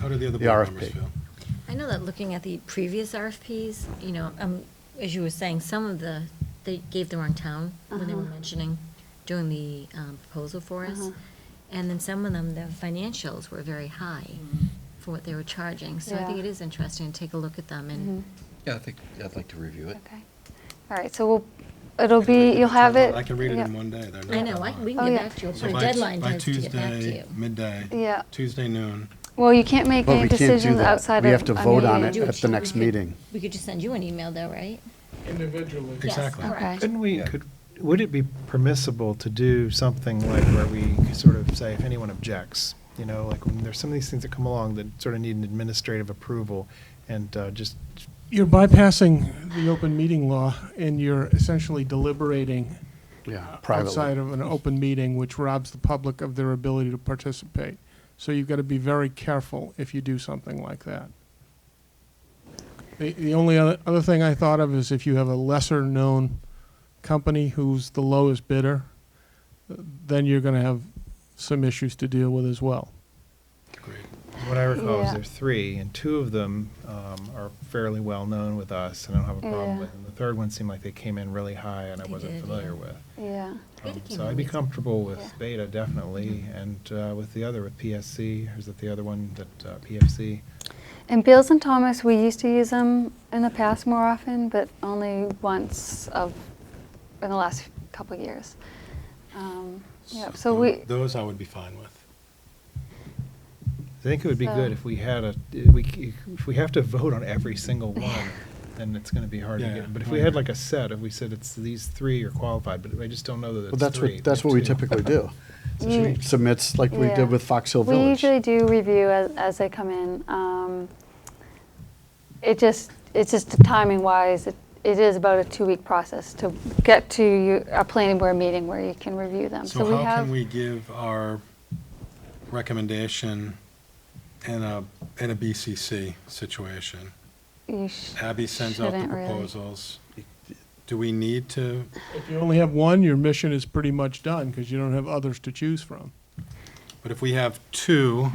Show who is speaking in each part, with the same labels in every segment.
Speaker 1: How did the other
Speaker 2: The
Speaker 1: board members
Speaker 2: RFP.
Speaker 1: feel?
Speaker 3: I know that looking at the previous RFPs, you know, um, as you were saying, some of the, they gave the wrong town when they were
Speaker 4: Uh-huh.
Speaker 3: mentioning doing the um, proposal for us.
Speaker 4: Uh-huh.
Speaker 3: And then some of them, the financials were very high for what they were charging. So I think
Speaker 4: Mm-hmm. Yeah. Mm-hmm.
Speaker 3: it is interesting to take a look at them and
Speaker 5: Yeah, I think, I'd like to review it.
Speaker 4: Okay. All right, so we'll, it'll be, you'll have it.
Speaker 1: I can read it
Speaker 4: yeah.
Speaker 1: in one day. They're
Speaker 3: I
Speaker 1: not
Speaker 3: know, I,
Speaker 1: long.
Speaker 3: we
Speaker 4: Oh,
Speaker 3: can
Speaker 4: yeah.
Speaker 3: get back to you,
Speaker 1: So
Speaker 3: put a
Speaker 1: by-
Speaker 3: deadline
Speaker 1: by
Speaker 3: to to get back to
Speaker 1: Tuesday,
Speaker 3: you.
Speaker 1: midday.
Speaker 4: Yeah.
Speaker 1: Tuesday noon.
Speaker 4: Well, you can't make
Speaker 2: But we
Speaker 4: any
Speaker 2: can't do
Speaker 4: decisions
Speaker 2: that.
Speaker 4: outside of.
Speaker 2: We have to
Speaker 4: a
Speaker 2: vote on
Speaker 4: meeting.
Speaker 2: it at the next meeting.
Speaker 3: We could just send you an email though, right?
Speaker 6: individually.
Speaker 3: Yes,
Speaker 1: Exactly.
Speaker 3: correct.
Speaker 4: Okay.
Speaker 7: Couldn't we,
Speaker 5: Yeah.
Speaker 7: could, would it be permissible to do something like where we sort of say if anyone objects? You know, like when there's some of these things that come along that sort of need an administrative approval and uh, just,
Speaker 6: You're bypassing the open meeting law, and you're essentially deliberating
Speaker 2: Yeah,
Speaker 6: Uh, outside
Speaker 2: privately.
Speaker 6: of an open meeting, which robs the public of their ability to participate. So you've got to be very careful if you do something like that. The, the only other, other thing I thought of is if you have a lesser-known company who's the lowest bidder, then you're going to have some issues to deal with as well.
Speaker 1: Agreed.
Speaker 7: what I recall is
Speaker 4: Yeah.
Speaker 7: there are three, and two of them um, are fairly well-known with us and I don't have a problem
Speaker 4: Yeah.
Speaker 7: with. And the third one seemed like they came in really high and I
Speaker 3: They
Speaker 7: wasn't
Speaker 3: did,
Speaker 7: familiar
Speaker 3: yeah.
Speaker 7: with.
Speaker 4: Yeah,
Speaker 3: Beta
Speaker 7: Um,
Speaker 3: came
Speaker 7: So
Speaker 3: in
Speaker 7: I'd be
Speaker 3: with-
Speaker 7: comfortable
Speaker 4: yeah.
Speaker 7: with Beta, definitely,
Speaker 3: Mm-hmm.
Speaker 7: and uh, with the other, with PSC, is that the other one, that uh, PFC?
Speaker 4: and Beals and Thomas, we used to use them in the past more often, but only once of, in the last couple of years. Um, Yeah, so
Speaker 1: tho-
Speaker 4: we,
Speaker 1: Those I would be fine with.
Speaker 7: I think it would be good
Speaker 4: So-
Speaker 7: if we had a, if we, c- if we have to vote on every single one, then it's gonna be hard to
Speaker 1: Yeah.
Speaker 7: get. But if we had like a set, if we said it's, these three are qualified, but I just don't know that
Speaker 2: Well,
Speaker 7: it's
Speaker 2: that's
Speaker 7: three.
Speaker 2: what, that's what we typically do.
Speaker 4: So she-
Speaker 2: She Submits like we
Speaker 4: Yeah.
Speaker 2: did with Fox Hill
Speaker 4: We
Speaker 2: Village.
Speaker 4: usually do review as, as they come in. Um, It just, it's just timing wise, it it is about a two-week process to get to you- a planning board meeting where you can review them.
Speaker 1: So
Speaker 4: we
Speaker 1: how
Speaker 4: have-
Speaker 1: can we give our recommendation in a, in a BCC situation?
Speaker 4: you sh-
Speaker 1: Abby sends out the
Speaker 4: Shouldn't really.
Speaker 1: proposals. Do we need to,
Speaker 6: If you only have one, your mission is pretty much done because you don't have others to choose from.
Speaker 1: but if we have two,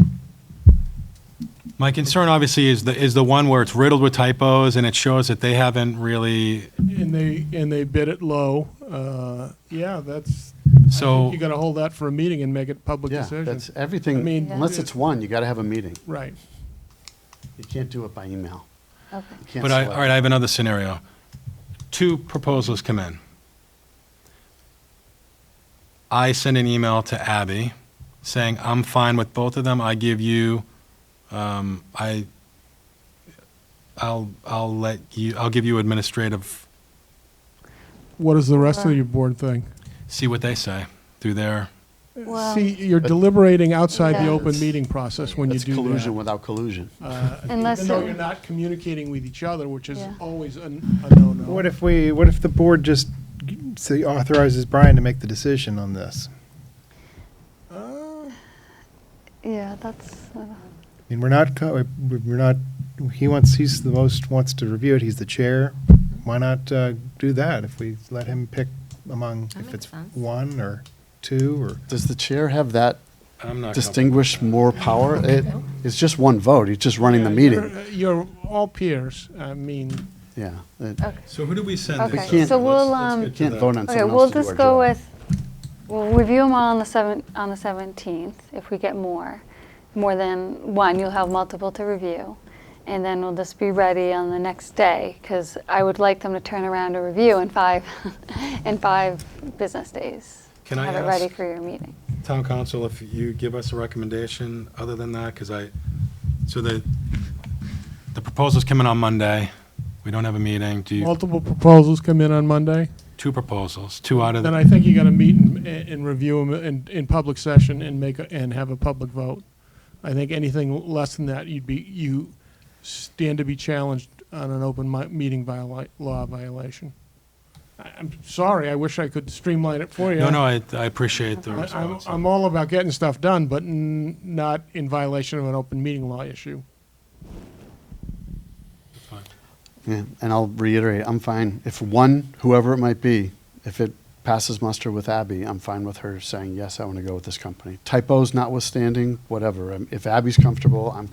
Speaker 1: my concern obviously is the, is the one where it's riddled with typos and it shows that they haven't really,
Speaker 6: And they, and they bid it low, uh, yeah, that's,
Speaker 1: so.
Speaker 6: you gotta hold that for a meeting and make it public
Speaker 2: Yeah,
Speaker 6: decision.
Speaker 2: that's everything,
Speaker 6: I mean-
Speaker 2: unless it's one, you gotta have a meeting.
Speaker 6: Right.
Speaker 2: You can't do it by email.
Speaker 4: okay.
Speaker 2: You can't
Speaker 1: But I,
Speaker 2: select.
Speaker 1: all right, I have another scenario. Two proposals come in. I send an email to Abby saying, I'm fine with both of them. I give you, um, I, I'll, I'll let you, I'll give you administrative,
Speaker 6: What does the rest of
Speaker 4: Right.
Speaker 6: your board think?
Speaker 1: see what they say through their,
Speaker 2: Uh,
Speaker 4: Well-
Speaker 6: See, you're deliberating outside the
Speaker 4: Yeah.
Speaker 6: open meeting process when you
Speaker 2: That's
Speaker 6: do
Speaker 2: collusion
Speaker 6: that.
Speaker 2: without collusion.
Speaker 6: Uh,
Speaker 4: Unless
Speaker 6: Even though
Speaker 4: it-
Speaker 6: you're not communicating with each other, which is
Speaker 4: Yeah.
Speaker 6: always a a no-no.
Speaker 7: What if we, what if the board just g- say authorizes Brian to make the decision on this?
Speaker 6: Uh,
Speaker 4: Yeah, that's, uh,
Speaker 7: I mean, we're not, co- we- we're not, he wants, he's the most, wants to review it, he's the chair. Why not uh, do that if we let him pick among,
Speaker 3: That
Speaker 7: if
Speaker 3: makes
Speaker 7: it's
Speaker 3: sense.
Speaker 7: one or two or?
Speaker 2: Does the chair have that
Speaker 1: I'm not.
Speaker 2: distinguished more power? It, it's just one vote, he's just running the
Speaker 6: yeah,
Speaker 2: meeting.
Speaker 6: you're- You're all peers, I mean,
Speaker 2: Yeah, it-
Speaker 4: okay.
Speaker 1: So who do we send
Speaker 4: Okay,
Speaker 1: this?
Speaker 2: can't-
Speaker 4: so we'll, um,
Speaker 1: Let's- let's get to
Speaker 2: can't
Speaker 1: the-
Speaker 2: vote on
Speaker 4: Okay,
Speaker 2: someone
Speaker 4: we'll
Speaker 2: else to do
Speaker 4: just
Speaker 2: our
Speaker 4: go
Speaker 2: job.
Speaker 4: with, we'll review them all on the seven, on the seventeenth. If we get more, more than one, you'll have multiple to review. And then we'll just be ready on the next day, because I would like them to turn around a review in five, in five business days.
Speaker 1: Can
Speaker 4: to
Speaker 1: I
Speaker 4: Have it ready
Speaker 1: ask-
Speaker 4: for your meeting.
Speaker 1: Town council, if you give us a recommendation other than that, because I, so the, the proposal's coming on Monday. We don't have a meeting. Do you,
Speaker 6: multiple proposals come in on Monday.
Speaker 1: two proposals, two out of,
Speaker 6: Then
Speaker 1: the
Speaker 6: I think you gotta meet and, and review them in, in public session and make, a- and have a public vote. I think anything less than that, you'd be, you stand to be challenged on an open mi- meeting viola, law violation. I, I'm sorry, I wish I could streamline it for you.
Speaker 1: no, no, I, I appreciate the
Speaker 6: I- I'm,
Speaker 1: response.
Speaker 6: I'm all about getting stuff done, but n- not in violation of an open meeting law issue.
Speaker 2: Yeah, and I'll reiterate, I'm fine. If one, whoever it might be, if it passes muster with Abby, I'm fine with her saying, yes, I want to go with this company. Typos notwithstanding, whatever. Um, If Abby's comfortable, I'm